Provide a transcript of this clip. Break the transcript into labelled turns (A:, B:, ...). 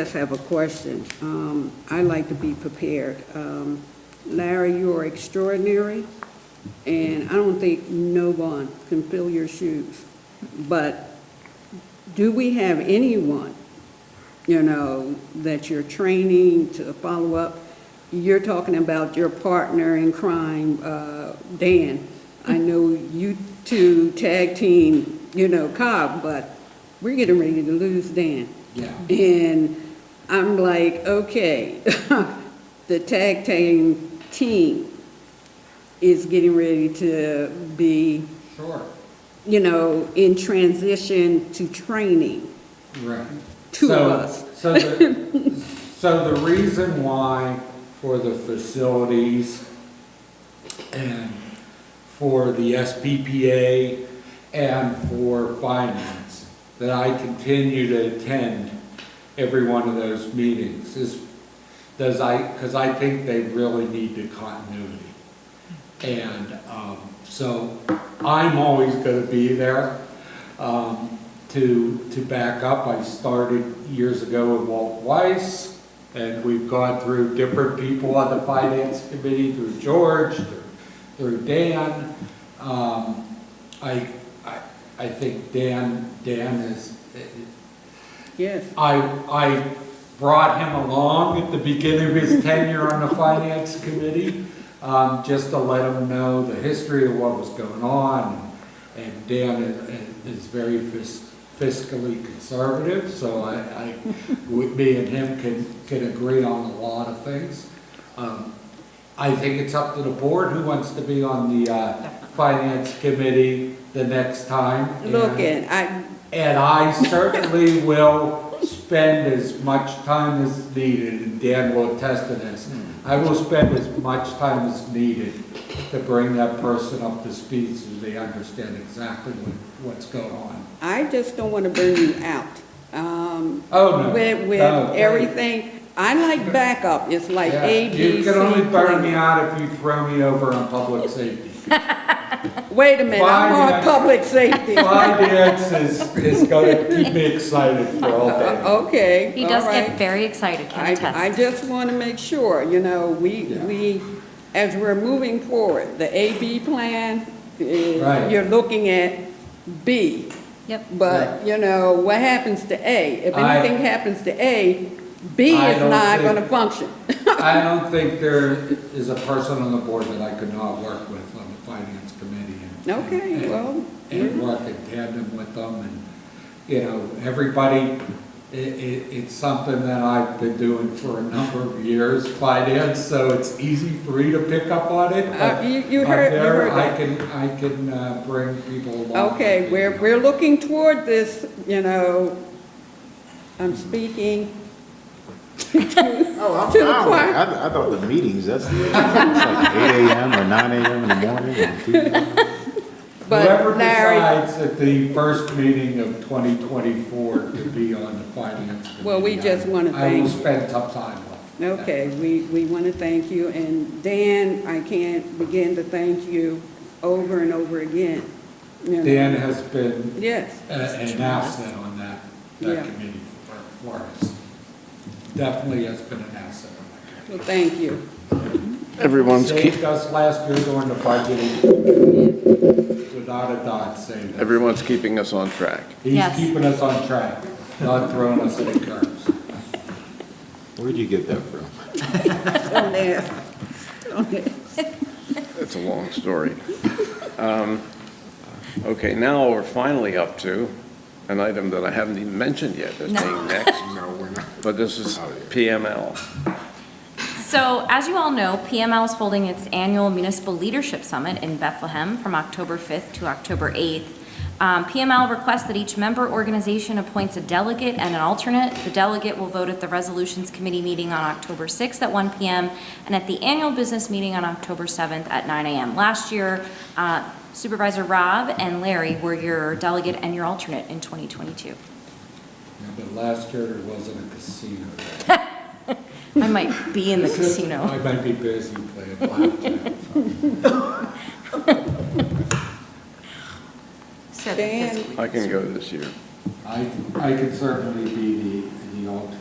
A: just have a question. Um, I like to be prepared. Um, Larry, you are extraordinary, and I don't think no one can fill your shoes. But do we have anyone, you know, that you're training to follow up? You're talking about your partner in crime, uh, Dan. I know you two tag team, you know, Cobb, but we're getting ready to lose Dan.
B: Yeah.
A: And I'm like, okay, the tag team team is getting ready to be,
B: Sure.
A: you know, in transition to training.
B: Right.
A: Two of
B: So-
A: us.
B: So, the- so the reason why for the facilities and for the SPPA and for finance, that I continue to attend every one of those meetings is, does I, because I think they really need the continuity. And um, so I'm always going to be there um, to, to back up. I started years ago with Walt Weiss, and we've gone through different people on the finance committee, through George, through- through Dan. Um, I, I, I think Dan, Dan is,
A: Yes.
B: I, I brought him along at the beginning of his tenure on the finance committee, um, just to let him know the history of what was going on. And Dan is, is very fis- fiscally conservative, so I, I, we- me and him can, can agree on a lot of things. Um, I think it's up to the board who wants to be on the, uh, finance committee the next time.
A: Look,
B: And-
A: and I,
B: and I certainly will spend as much time as needed, and Dan will attest to this. I will spend as much time as needed to bring that person up to speed so they understand exactly what, what's going on.
A: I just don't want to burn you out. Um,
B: Oh, no.
A: With, with
B: No, thank you.
A: everything, I like backup, it's like
B: Yeah.
A: A, B, C.
B: You can only burn me
A: plan.
B: out if you throw me over on public safety.
A: Wait a minute, I'm
B: Why did
A: on
B: I-
A: public safety.
B: Finance is, is gonna keep me excited for all
A: Oh,
B: day.
A: Okay,
C: He does
A: all right.
C: get very excited, can attest.
A: I, I just want to make sure, you know, we,
B: Yeah.
A: we, as we're moving forward, the AB plan, eh,
B: Right.
A: you're looking at B.
C: Yep.
A: But, you know, what happens to A? If
B: I-
A: anything happens to A, B
B: I
A: is
B: don't
A: not
B: think-
A: going to function.
B: I don't think there is a person on the board that I could not work with on the finance committee. and-
A: Okay,
B: and-
A: well,
B: And work in tandem with them, and, you know, everybody, i- i it's something that I've been doing for a number of years, finance, so it's easy for me to pick up on it.
A: Uh,
B: but-
A: you- you
B: but
A: heard- you
B: there
A: heard
B: I
A: that.
B: can, I can uh, bring people along.
A: Okay, we're, we're looking toward this, you know, I'm speaking,
D: Oh, I'm
A: To the
D: fine
A: choir.
D: with it. I, I thought the meetings, that's, it's like eight AM or nine AM in the morning and two.
A: but
B: Whoever
A: Larry,
B: decides at the first meeting of 2024 to be on the finance committee.
A: Well, we just wanna
B: I will
A: thank-
B: spend some time on it.
A: okay, we, we want to thank you, and Dan, I can't begin to thank you over and over again. you know.
B: Dan has been
A: Yes,
B: uh, an asset on that,
A: Yeah.
B: that committee for- for us. Definitely has been an asset on that
A: well,
B: committee.
A: thank you.
E: Everyone's keep,
B: Saved us last year during the budgeting, without a doubt saved us.
E: everyone's keeping us on track.
B: He's
C: Yes.
B: keeping us on track, not throwing us in the curves.
D: Where'd you get that from?
A: Don't ask. Don't ask.
E: It's a long story. Um, Okay, now we're finally up to an item that I haven't even mentioned yet as
C: No.
E: being next, but this is PML.
C: So, as you all know, PML is holding its annual Municipal Leadership Summit in Bethlehem from October 5th to October 8th. Um, PML requests that each member organization appoints a delegate and an alternate. The delegate will vote at the Resolutions Committee meeting on October 6th at 1 PM and at the annual business meeting on October 7th at 9 AM. Last year, uh, Supervisor Rob and Larry were your delegate and your alternate in 2022.
B: Yeah, But last year it wasn't a casino.
C: I might be in the casino.
B: I might be busy playing blackjack.
A: Dan,
E: I can go this year.
B: I, I could certainly be the, the alternate.